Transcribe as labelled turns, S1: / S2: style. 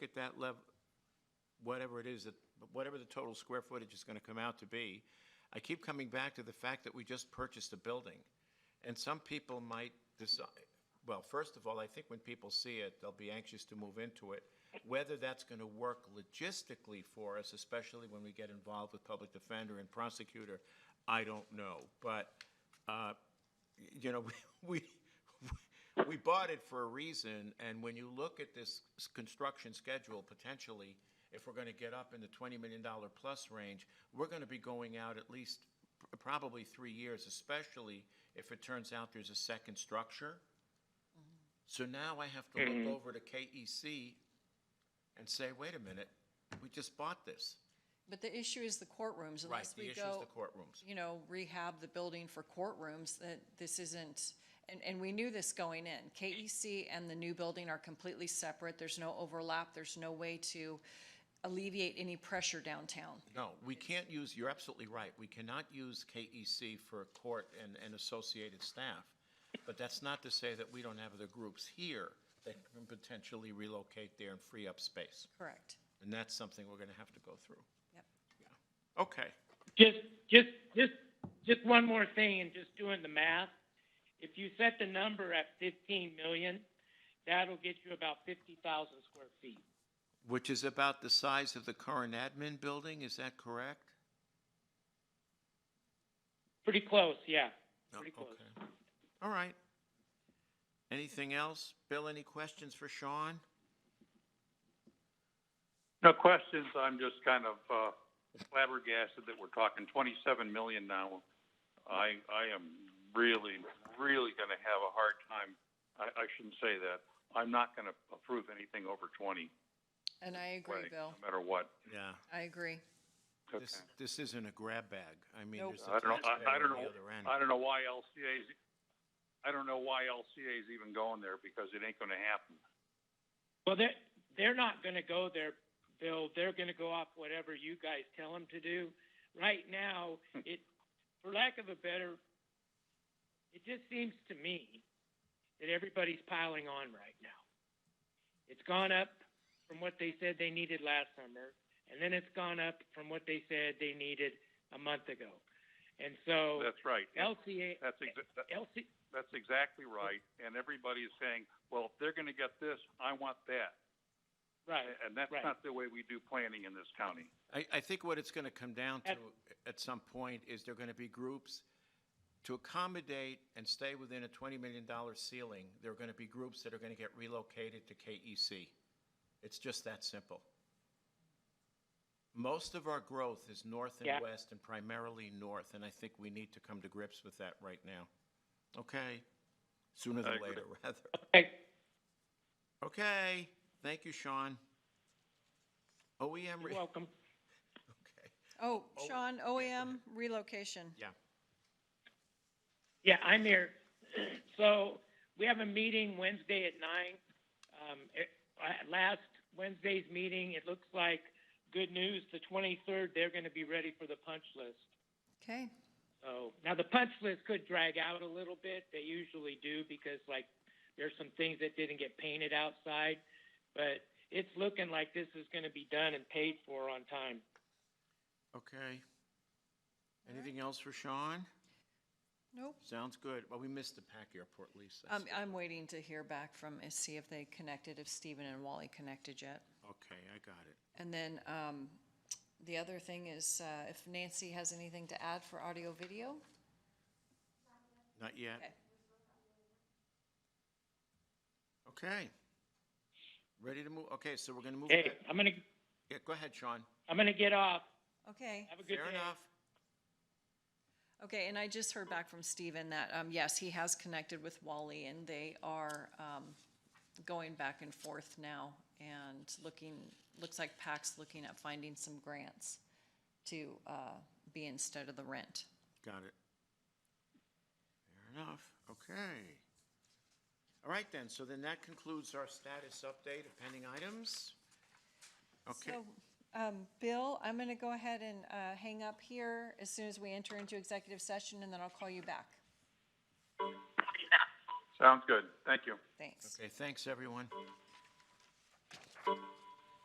S1: get that level, whatever it is, that whatever the total square footage is going to come out to be. I keep coming back to the fact that we just purchased a building. And some people might decide, well, first of all, I think when people see it, they'll be anxious to move into it. Whether that's going to work logistically for us, especially when we get involved with public defender and prosecutor, I don't know. But, uh, you know, we, we, we bought it for a reason, and when you look at this s- construction schedule, potentially, if we're gonna get up in the twenty million dollar plus range, we're gonna be going out at least pr- probably three years, especially if it turns out there's a second structure.
S2: Mm-hmm.
S1: So now I have to look over to KEC and say, wait a minute, we just bought this.
S2: But the issue is the
S1: Right,
S2: courtrooms, unless
S1: the
S2: we
S1: issue is
S2: go,
S1: the courtrooms.
S2: you know, rehab the building for courtrooms, that this isn't, and, and we knew this going in. KEC and the new building are completely separate, there's no overlap, there's no way to alleviate any pressure downtown.
S1: No, we can't use, you're absolutely right, we cannot use KEC for court and, and associated staff. But that's not to say that we don't have other groups here that can potentially relocate there and free up space.
S2: Correct.
S1: And that's something we're gonna have to go through.
S2: Yep.
S1: Okay,
S3: Just, just, just, just one more thing, and just doing the math. If you set the number at fifteen million, that'll get you about fifty thousand square feet.
S1: which is about the size of the current admin building, is that correct?
S3: Pretty close, yeah.
S1: No,
S3: Pretty close.
S1: Oh, okay. All right. Anything else? Bill, any questions for Sean?
S4: No questions, I'm just kind of uh, flabbergasted that we're talking twenty-seven million now. I, I am really, really gonna have a hard time, I, I shouldn't say that. I'm not gonna approve anything over twenty,
S2: And I agree,
S4: way,
S2: Bill,
S4: no matter what.
S1: Yeah.
S2: I agree.
S4: Okay.
S1: This, this isn't a grab bag, I mean,
S2: Nope.
S1: there's a
S4: I don't know,
S1: taxpayer
S4: I, I
S1: on
S4: don't
S1: the
S4: know,
S1: other end.
S4: I don't know why LCA's, I don't know why LCA's even going there, because it ain't gonna happen.
S3: Well, they're, they're not gonna go there, Bill. They're gonna go off whatever you guys tell them to do. Right now, it, for lack of a better, it just seems to me that everybody's piling on right now. It's gone up from what they said they needed last summer, and then it's gone up from what they said they needed a month ago. And so
S4: That's right,
S3: LCA,
S4: that's exa- that-
S3: LC,
S4: That's exactly right. And everybody is saying, well, if they're gonna get this, I want that.
S3: right,
S4: A- And that's
S3: Right.
S4: not the way we do planning in this county.
S1: I, I think what it's going to come down to
S3: At-
S1: at some point is there going to be groups to accommodate and stay within a $20 million ceiling. There are going to be groups that are going to get relocated to KEC. It's just that simple. Most of our growth is north
S3: Yeah.
S1: and west and primarily north, and I think we need to come to grips with that right now. Okay? Sooner
S4: I
S1: than
S4: agree.
S1: later, rather.
S3: okay,
S1: Okay, thank you, Sean. OEM,
S3: you're
S1: re-
S3: welcome.
S1: okay,
S2: Oh, Sean, OEM relocation.
S1: yeah.
S3: Yeah, I'm here. So we have a meeting Wednesday at nine. Um, it, at last Wednesday's meeting, it looks like good news. The 23rd, they're going to be ready for the punch list.
S2: Okay,
S3: So now the punch list could drag out a little bit. They usually do because like there's some things that didn't get painted outside, but it's looking like this is going to be done and paid for on time.
S1: Okay. Anything else for Sean?
S2: nope.
S1: Sounds good. Well, we missed the Pack Airport lease. I
S2: I'm,
S3: Um,
S1: see.
S2: I'm waiting to hear back from, see if they connected, if Stephen and Wally connected yet.
S1: Okay, I got it.
S2: And then um, the other thing is, uh, if Nancy has anything to add for audio video?
S1: Not yet?
S2: Okay.
S1: Okay. Ready to move? Okay, so we're gonna move.
S3: Hey,
S1: back-
S3: I'm going to,
S1: Yeah, go ahead, Sean.
S3: I'm going to get off.
S2: Okay,
S3: Have a good
S1: Fair
S3: day.
S1: enough.
S2: okay, and I just heard back from Stephen that, um, yes, he has connected with Wally and they are um, going back and forth now and looking, looks like PAC's looking at finding some grants to uh, be instead of the rent.
S1: Got it. Fair enough. Okay. All right then, so then that concludes our status update of pending items. Okay.
S2: So, um, Bill, I'm going to go ahead and uh, hang up here as soon as we enter into executive session and then I'll call you back.
S4: Sounds good. Thank you.
S2: Thanks.
S1: Okay, thanks, everyone.